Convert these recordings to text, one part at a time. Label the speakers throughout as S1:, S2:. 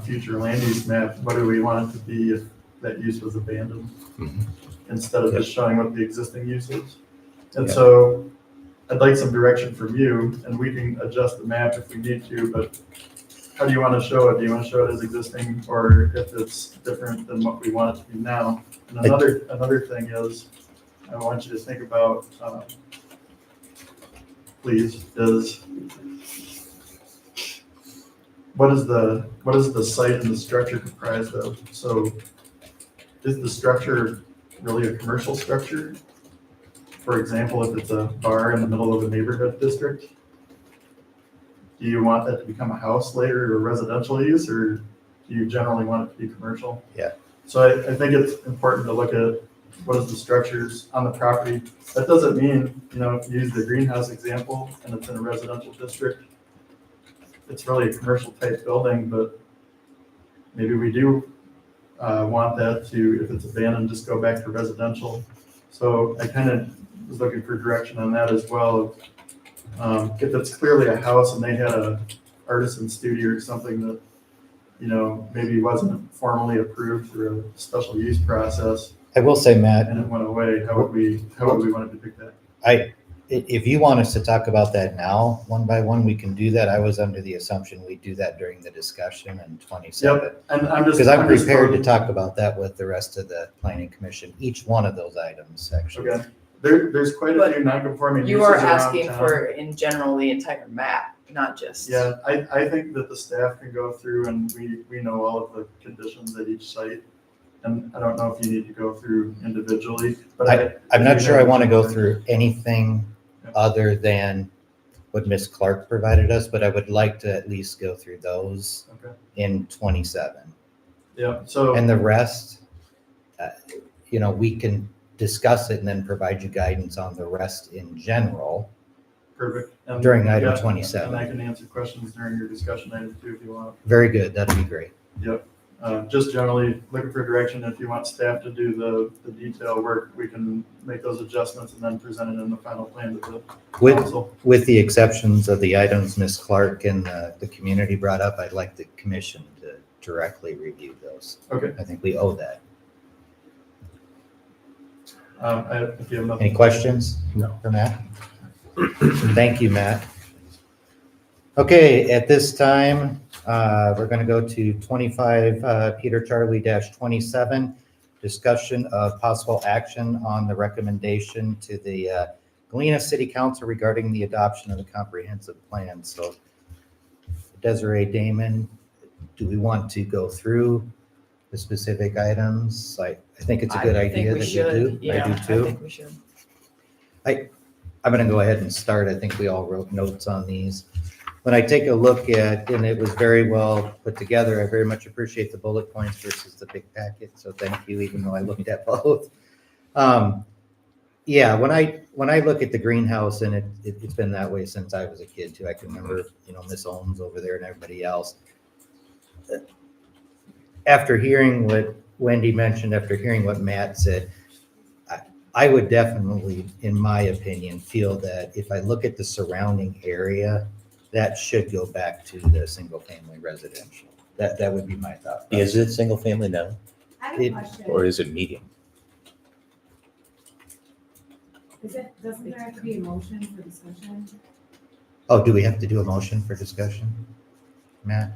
S1: future land use map, what do we want it to be if that use was abandoned?
S2: Mhm.
S1: Instead of just showing what the existing use is. And
S2: Yeah.
S1: so I'd like some direction from you and we can adjust the map if we need to, but how do you want to show it? Do you want to show it as existing or if it's different than what we want it to be now? And
S2: I-
S1: another, another thing is, I want you to think about, um, please, is what is the, what is the site and the structure comprised of? So is the structure really a commercial structure? For example, if it's a bar in the middle of a neighborhood district? Do you want that to become a house later or residential use, or do you generally want it to be commercial?
S2: Yeah.
S1: So I, I think it's important to look at what is the structures on the property. That doesn't mean, you know, if you use the greenhouse example and it's in a residential district, it's really a commercial type building, but maybe we do uh, want that to, if it's abandoned, just go back to residential. So I kind of was looking for direction on that as well. Um, If it's clearly a house and they had a artisan studio or something that, you know, maybe wasn't formally approved through a special use process
S2: I will say, Matt,
S1: and it went away, how would we, how would we want to depict that?
S2: i- if you want us to talk about that now, one by one, we can do that. I was under the assumption we do that during the discussion in twenty-seven.
S1: And I'm just.
S2: Because I'm
S1: just
S2: prepared
S1: throwing-
S2: to talk about that with the rest of the planning commission, each one of those items, actually.
S1: Okay, there, there's quite a few non-conforming uses
S3: You are
S1: around
S3: asking
S1: town.
S3: for, in general, the entire map, not just.
S1: Yeah, I, I think that the staff can go through and we, we know all of the conditions at each site. And I don't know if you need to go through individually, but I.
S2: I'm not sure I want to go
S1: Okay.
S2: through anything
S1: Yeah.
S2: other than what Ms. Clark provided us, but I would like to at least go through those
S1: Okay.
S2: in twenty-seven.
S1: Yeah, so,
S2: And the rest, uh, you know, we can discuss it and then provide you guidance on the rest in general
S1: perfect. And-
S2: during item
S1: yeah, And I
S2: twenty-seven.
S1: can answer questions during your discussion item too if you want.
S2: Very good, that'd be great.
S1: Uh, just generally looking for direction. If you want staff to do the, the detail work, we can make those adjustments and then present it in the final plan to the
S2: With,
S1: council.
S2: with the exceptions of the items Ms. Clark and the, the community brought up, I'd like the commission to directly review those.
S1: Okay.
S2: I think we owe that.
S1: Um, I, if you have nothing.
S2: Any questions?
S4: No.
S2: For Matt? Thank you, Matt. Okay, at this time, uh, we're going to go to 25 uh, Peter Charlie dash 27, discussion of possible action on the recommendation to the uh, Galena City Council regarding the adoption of the comprehensive plan. So Desiree Damon, do we want to go through the specific items? I I think it's a
S3: I
S2: good
S3: think
S2: idea that
S3: we
S2: we
S3: should.
S2: do.
S3: Yeah,
S2: I do too.
S3: I think we should.
S2: I'm going to go ahead and start. I think we all wrote notes on these. When I take a look at, and it was very well put together, I very much appreciate the bullet points versus the big packet. So thank you, even though I looked at both. Um, Yeah, when I, when I look at the greenhouse and it, it- it's been that way since I was a kid too. I can remember, you know, Miss Owens over there and everybody else. After hearing what Wendy mentioned, after hearing what Matt said, I would definitely, in my opinion, feel that if I look at the surrounding area, that should go back to the single-family residential. That, that would be my thought.
S4: Is it single family now,
S5: I have a
S2: It-
S5: question.
S4: or is it medium?
S5: Is it, doesn't there have to be a motion for discussion?
S2: Oh, do we have to do a motion for discussion? Matt?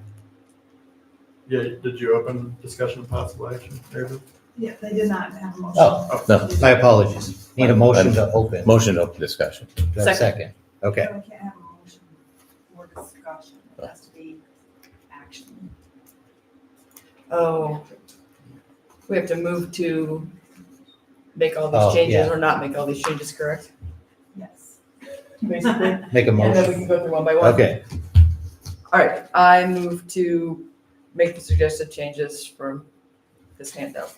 S1: Yeah, did you open discussion of possible action, David?
S6: Yeah, they did not have a motion.
S2: Oh,
S4: No,
S2: my apologies. Need a motion to open.
S4: motion to open discussion.
S2: Do I have a Second.
S6: We
S2: Okay,
S6: can't have a motion for discussion. It has to be action.
S3: Oh, we have to move to make all
S2: Oh,
S3: these changes
S2: yeah.
S3: or not make all these changes, correct?
S6: Yes.
S3: Basically, and
S2: make a
S3: then we can
S2: motion.
S3: go through one by one.
S2: Okay,
S3: All right, I move to make the suggested changes from this handout.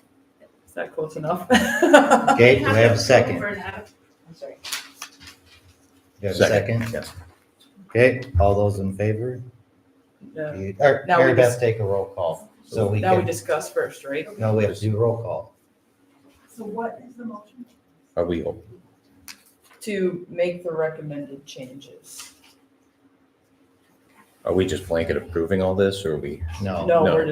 S3: Is that close enough? I'm
S2: okay, do I have a second? Do
S3: sorry.
S2: I have a second?
S4: Yes.
S2: Okay, all those in favor?
S3: No.
S2: You- Or
S3: Now we
S2: Mary Beth,
S3: just-
S2: take a roll call. So we
S3: Now we
S2: can,
S3: discuss first, right?
S2: no, we have to do roll call.
S6: So what is the motion?
S4: Are we open?
S3: To make the recommended changes.
S4: Are we just blanket approving all this, or are we?
S2: Oh, No.
S3: No,
S4: No.
S3: we're